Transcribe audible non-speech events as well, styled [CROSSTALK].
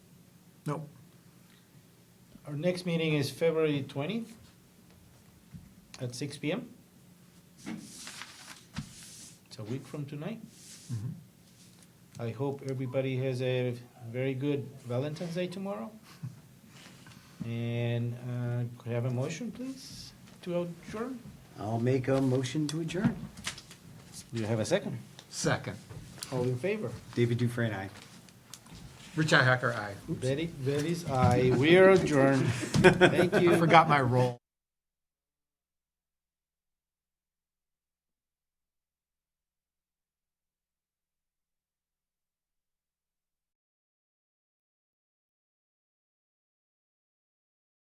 Nope. Our next meeting is February twentieth at six P M. It's a week from tonight. I hope everybody has a very good Valentine's Day tomorrow. And uh, could I have a motion, please, to adjourn? I'll make a motion to adjourn. Do you have a second? Second. All in favor? David Dufresne, aye. Richi Hacker, aye. [LAUGHS] Betty, Betty's aye. We are adjourned. Thank you. I forgot my role.